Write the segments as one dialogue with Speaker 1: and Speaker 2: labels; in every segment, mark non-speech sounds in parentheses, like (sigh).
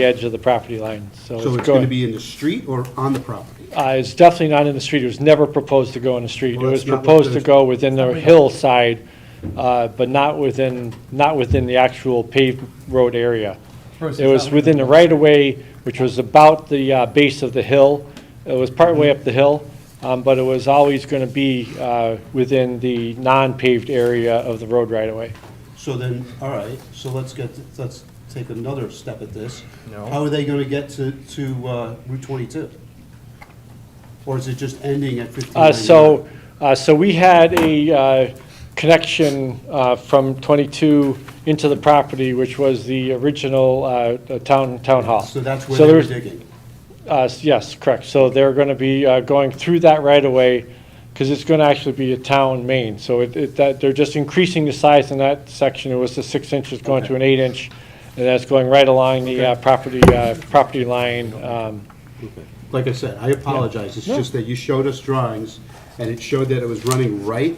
Speaker 1: the edge of the property line, so.
Speaker 2: So it's going to be in the street or on the property?
Speaker 1: Uh, It's definitely not in the street. It was never proposed to go in the street. It
Speaker 2: Well, that's
Speaker 1: was
Speaker 2: not what
Speaker 1: proposed to
Speaker 2: the-
Speaker 1: go within the hillside, uh, but not within, not within the actual paved road area. It was within the right-of-way, which was about the uh, base of the hill. It was partway up the hill, um, but it was always going to be uh, within the non-paved area of the road right-of-way.
Speaker 2: So then, all right, so let's get, let's take another step at this.
Speaker 3: No.
Speaker 2: How are they going to get to, to uh, Route 22? Or is it just ending at 59?
Speaker 1: Uh, So, uh, so we had a uh, connection uh, from 22 into the property, which was the original uh, the town, town hall.
Speaker 2: So that's where
Speaker 1: So
Speaker 2: they were
Speaker 1: there's-
Speaker 2: digging?
Speaker 1: uh, s- Yes, correct. So they're going to be uh, going through that right away because it's going to actually be a town main. So it, it- that, they're just increasing the size in that section. It was the six inches going to an eight inch, and that's going right along the uh, property, uh, property line. um,
Speaker 2: Okay. Like I said, I apologize, it's
Speaker 1: No.
Speaker 2: just that you showed us drawings, and it showed that it was running right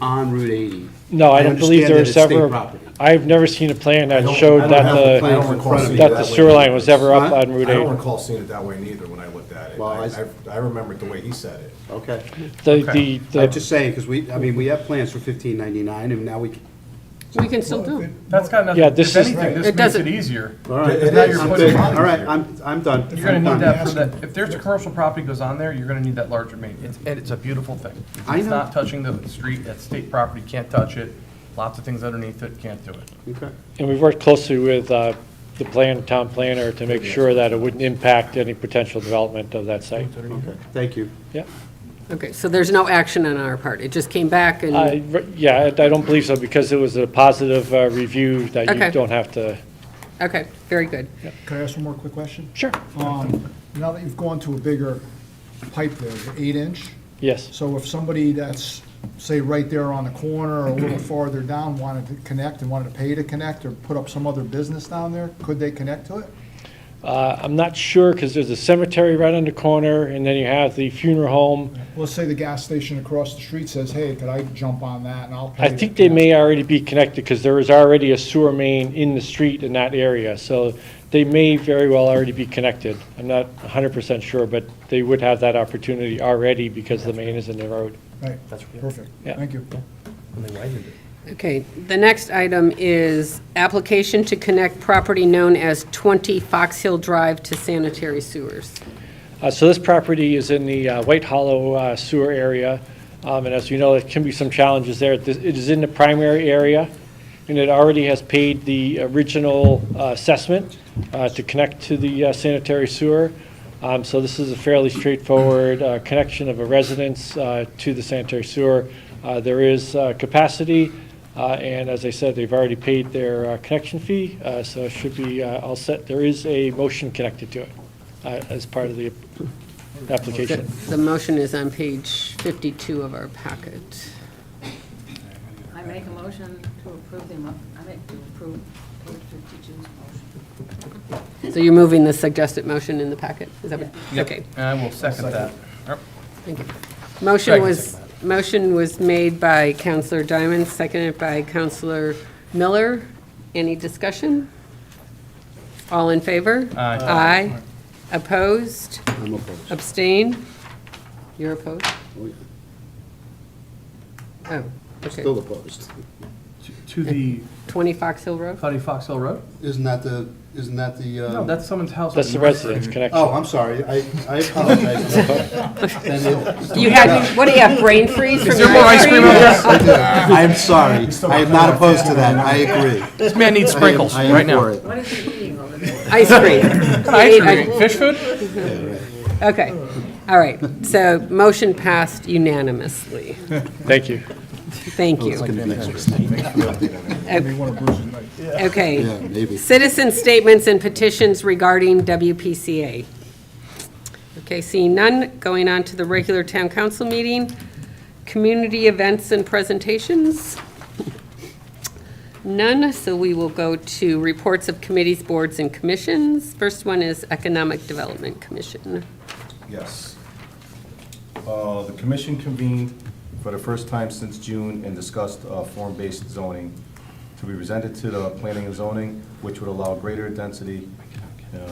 Speaker 2: on Route 80.
Speaker 1: No, I don't believe there
Speaker 2: understand
Speaker 1: was
Speaker 2: that it's state
Speaker 1: ever,
Speaker 2: property.
Speaker 1: I've never seen a plan
Speaker 3: I
Speaker 1: that
Speaker 3: don't- I
Speaker 1: showed
Speaker 3: don't
Speaker 1: that
Speaker 2: have the
Speaker 1: the,
Speaker 2: plan.
Speaker 3: I don't recall seeing it
Speaker 1: that the
Speaker 3: that way
Speaker 1: sewer line
Speaker 3: either.
Speaker 1: was ever up
Speaker 2: Huh?
Speaker 1: on Route
Speaker 3: I don't
Speaker 1: 8.
Speaker 3: recall seeing it that way neither when I looked at it.
Speaker 2: Well, I
Speaker 3: I,
Speaker 2: s-
Speaker 3: I- I remembered the way he said it.
Speaker 2: Okay.
Speaker 1: The,
Speaker 3: Okay.
Speaker 1: the,
Speaker 2: I'm
Speaker 1: the
Speaker 2: just saying, because we, I mean, we have plans for 1599, and now we,
Speaker 4: We can still do. it.
Speaker 5: That's got nothing,
Speaker 1: Yeah, this
Speaker 5: if
Speaker 1: is-
Speaker 5: anything,
Speaker 4: It
Speaker 5: this makes
Speaker 4: doesn't-
Speaker 5: it easier.
Speaker 2: all right,
Speaker 3: It
Speaker 2: now
Speaker 3: is.
Speaker 2: you're
Speaker 3: I'm
Speaker 2: putting-
Speaker 3: taking-
Speaker 2: all right, I'm, I'm done.
Speaker 5: You're gonna
Speaker 2: I'm
Speaker 5: need
Speaker 2: done.
Speaker 5: that for that, if there's a commercial property goes on there, you're gonna need that larger main. It's, and it's a beautiful thing.
Speaker 2: I
Speaker 5: It's
Speaker 2: know.
Speaker 5: not touching the street, that's state property, can't touch it. Lots of things underneath it, can't do it.
Speaker 2: Okay.
Speaker 1: and we worked closely with uh, the plan, town planner to make sure that it wouldn't impact any potential development of that site.
Speaker 2: Okay, thank you.
Speaker 1: Yeah,
Speaker 4: Okay, so there's no action on our part. It just came back and,
Speaker 1: I, yeah, I don't believe so because it was a positive uh, review that you
Speaker 4: Okay.
Speaker 1: don't have to.
Speaker 4: okay, very good.
Speaker 6: Can I ask one more quick question?
Speaker 1: Sure.
Speaker 6: Um, Now that you've gone to a bigger pipe there, the eight inch,
Speaker 1: Yes,
Speaker 6: so if somebody that's, say, right there on the corner or a
Speaker 1: (clears throat)
Speaker 6: little farther down wanted to connect and wanted to pay to connect or put up some other business down there, could they connect to it?
Speaker 1: Uh, I'm not sure because there's a cemetery right on the corner and then you have the funeral home.
Speaker 6: Let's say the gas station across the street says, hey, could I jump on that and I'll pay.
Speaker 1: I
Speaker 6: to
Speaker 1: think they
Speaker 6: connect."
Speaker 1: may already be connected, because there is already a sewer main in the street in that area, so they may very well already be connected. I'm not hundred percent sure, but they would have that opportunity already because the main is in the road.
Speaker 6: Right, perfect,
Speaker 1: Yeah.
Speaker 6: thank you.
Speaker 4: Okay, the next item is application to connect property known as 20 Fox Hill Drive to sanitary sewers.
Speaker 1: Uh, So this property is in the uh, White Hollow uh, sewer area, um, and as you know, there can be some challenges there. This- It is in the primary area, and it already has paid the original uh, assessment uh, to connect to the uh, sanitary sewer. Um, So this is a fairly straightforward uh, connection of a residence uh, to the sanitary sewer. Uh, There is uh, capacity, uh, and as I said, they've already paid their uh, connection fee, uh, so it should be uh, all set. There is a motion connected to it uh, as part of the
Speaker 4: The
Speaker 1: application.
Speaker 4: the motion is on page 52 of our packet.
Speaker 7: I make a motion to approve the, emo- I make to approve page 52's motion.
Speaker 4: So you're moving the suggested motion in the packet? Is that what? Okay,
Speaker 5: And I will second that. Yep.
Speaker 4: thank you. Motion
Speaker 5: Second,
Speaker 4: was, motion was made by Counselor Diamond, seconded by Counselor Miller. Any discussion? All in favor?
Speaker 5: Aye.
Speaker 4: Aye. Opposed?
Speaker 2: I'm opposed.
Speaker 4: Abstain? You're opposed?
Speaker 2: Oh, yeah.
Speaker 4: Oh, okay.
Speaker 2: Still opposed.
Speaker 5: To the
Speaker 4: 20 Fox Hill Road?
Speaker 5: Cuddy Fox Hill Road?
Speaker 2: Isn't that the, isn't that the? uh,
Speaker 5: No, that's someone's house.
Speaker 1: That's the residence connection.
Speaker 2: Oh, I'm sorry, I, I apologize. Then it-
Speaker 4: You had, what do you have, brain freeze from
Speaker 5: Is there more ice cream over there?
Speaker 2: (laughs) I'm sorry, I am not opposed to that, I agree.
Speaker 5: This man needs
Speaker 2: I am-
Speaker 5: sprinkles
Speaker 2: I am
Speaker 5: right now.
Speaker 2: for it.
Speaker 7: What is he eating over there?
Speaker 4: Ice cream.
Speaker 5: (laughs) Ice cream, fish food?
Speaker 4: Okay, all right. So motion passed unanimously.
Speaker 1: Thank you.
Speaker 4: Thank you.
Speaker 6: They want to bruise it, like-
Speaker 4: Okay.
Speaker 2: Yeah, maybe.
Speaker 4: Citizen statements and petitions regarding WPCA. Okay, seeing none, going on to the regular town council meeting. Community events and presentations. None, so we will go to reports of committees, boards, and commissions. First one is Economic Development Commission.
Speaker 3: Yes. Uh, The commission convened for the first time since June and discussed uh, form-based zoning to be presented to the planning and zoning, which would allow greater density